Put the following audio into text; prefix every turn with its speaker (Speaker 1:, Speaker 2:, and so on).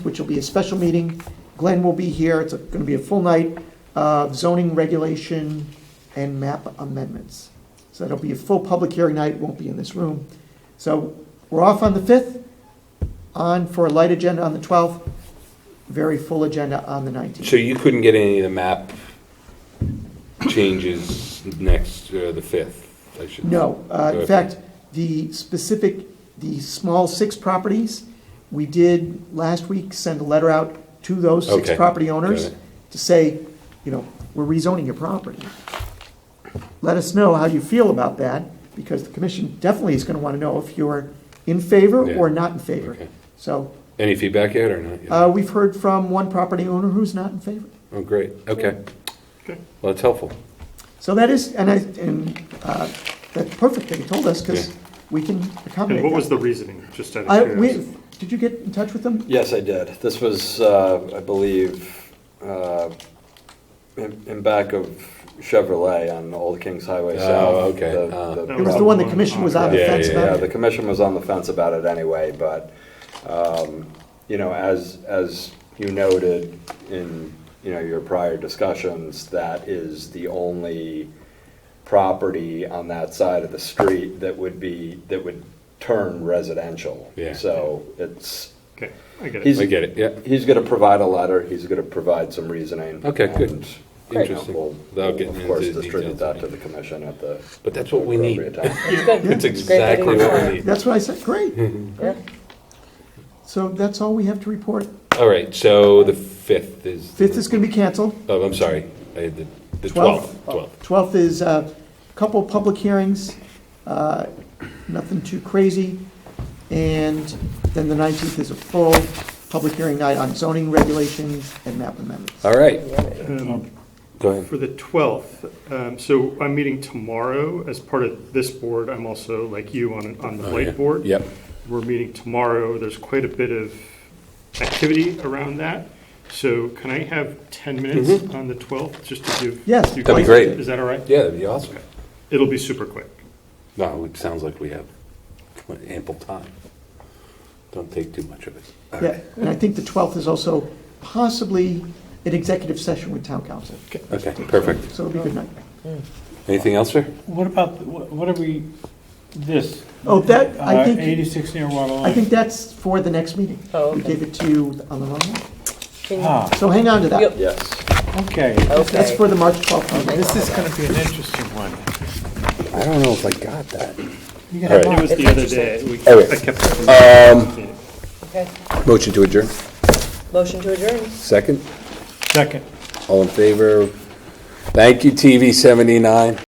Speaker 1: which will be a special meeting. Glenn will be here. It's going to be a full night of zoning regulation and map amendments. So it'll be a full public hearing night, won't be in this room. So we're off on the 5th, on for a light agenda on the 12th, very full agenda on the 19th.
Speaker 2: So you couldn't get any of the map changes next, uh, the 5th, I should.
Speaker 1: No, uh, in
Speaker 2: Okay.
Speaker 1: fact, the specific, the small six properties, we did last week send a letter out to those six
Speaker 2: Okay,
Speaker 1: property owners
Speaker 2: got it.
Speaker 1: to say, you know, we're rezoning your property. Let us know how you feel about that, because the commission definitely is gonna wanna know if you're in favor
Speaker 2: Yeah,
Speaker 1: or not in favor.
Speaker 2: okay.
Speaker 1: So,
Speaker 2: Any feedback yet or not? yet?
Speaker 1: uh, we've heard from one property owner who's not in favor.
Speaker 2: Oh, great, okay. Well, that's helpful.
Speaker 1: So that is, and I, and, uh, that's perfect that you told us, because
Speaker 2: Yeah.
Speaker 1: we can accommodate
Speaker 3: And what
Speaker 1: that.
Speaker 3: was the reasoning, just out
Speaker 1: I,
Speaker 3: of
Speaker 1: we,
Speaker 3: curiosity?
Speaker 1: did you get in touch with them?
Speaker 4: Yes, I did. This was, uh, I believe, uh, in in back of Chevrolet on Old Kings Highway
Speaker 2: Oh,
Speaker 4: South.
Speaker 2: okay.
Speaker 4: The-
Speaker 2: Uh.
Speaker 4: the-
Speaker 1: It was the one the commission was on the
Speaker 2: Yeah,
Speaker 1: fence
Speaker 2: yeah,
Speaker 4: Yeah,
Speaker 1: about.
Speaker 4: the commission was on the fence about it anyway, but, um, you know, as, as you noted in, you know, your prior discussions, that is the only property on that side of the street that would be, that would turn residential.
Speaker 2: Yeah.
Speaker 4: So it's,
Speaker 3: Okay, I get it.
Speaker 4: He's-
Speaker 2: I get it, yeah.
Speaker 4: he's gonna provide a letter, he's gonna provide some reasoning.
Speaker 2: Okay, good.
Speaker 4: and, you know,
Speaker 2: Interesting.
Speaker 4: we'll-
Speaker 2: Without
Speaker 4: We'll,
Speaker 2: getting
Speaker 4: of course,
Speaker 2: into the
Speaker 4: distribute
Speaker 2: details.
Speaker 4: that to the commission at the.
Speaker 2: But that's what we need.
Speaker 4: appropriate time.
Speaker 2: It's exactly what we need.
Speaker 1: That's what I said, great. So that's all we have to report.
Speaker 2: All right, so the 5th is.
Speaker 1: Fifth is gonna be canceled.
Speaker 2: Oh, I'm sorry, I had the, the 12th,
Speaker 1: Twelfth.
Speaker 2: 12th.
Speaker 1: Twelfth is a couple public hearings, uh, nothing too crazy. And then the nineteenth is a full public hearing night on zoning regulations and map amendments.
Speaker 2: All right,
Speaker 3: Um,
Speaker 2: go ahead.
Speaker 3: For the 12th, um, so I'm meeting tomorrow as part of this board. I'm also, like you, on, on the
Speaker 2: Oh, yeah.
Speaker 3: light board.
Speaker 2: Yep.
Speaker 3: We're meeting tomorrow. There's quite a bit of activity around that. So can I have 10 minutes on the 12th, just to give?
Speaker 1: Mm-hmm. Yes,
Speaker 3: you
Speaker 1: That'd be
Speaker 3: guys-
Speaker 2: great.
Speaker 3: Is that all right?
Speaker 2: Yeah, that'd be awesome.
Speaker 3: It'll be super quick.
Speaker 2: No, it sounds like we have ample time. Don't take too much of it.
Speaker 1: Yeah, and I think the twelfth is also possibly an executive session with town council.
Speaker 2: Okay, perfect.
Speaker 1: So it'll be a good night.
Speaker 2: Anything else, sir?
Speaker 5: What about, what what are we, this?
Speaker 1: Oh, that- I
Speaker 5: Uh,
Speaker 1: think-
Speaker 5: 86 near water line.
Speaker 1: I think that's for the next meeting.
Speaker 6: Oh,
Speaker 1: We
Speaker 6: okay.
Speaker 1: gave it to you on the wrong one.
Speaker 5: Ah,
Speaker 1: So hang on to that.
Speaker 6: Yep.
Speaker 4: Yes.
Speaker 5: okay.
Speaker 1: That's
Speaker 6: Okay.
Speaker 1: for the March 12th meeting.
Speaker 5: This is going to be an interesting one.
Speaker 4: I don't know if I got that.
Speaker 5: You got a
Speaker 3: It
Speaker 5: lot.
Speaker 3: was the other day. We-
Speaker 4: All right.
Speaker 3: I kept.
Speaker 4: Um,
Speaker 6: Okay.
Speaker 4: Motion to adjourn.
Speaker 6: Motion to adjourn.
Speaker 4: Second,
Speaker 5: Second.
Speaker 4: all in favor? Thank you, TV 79.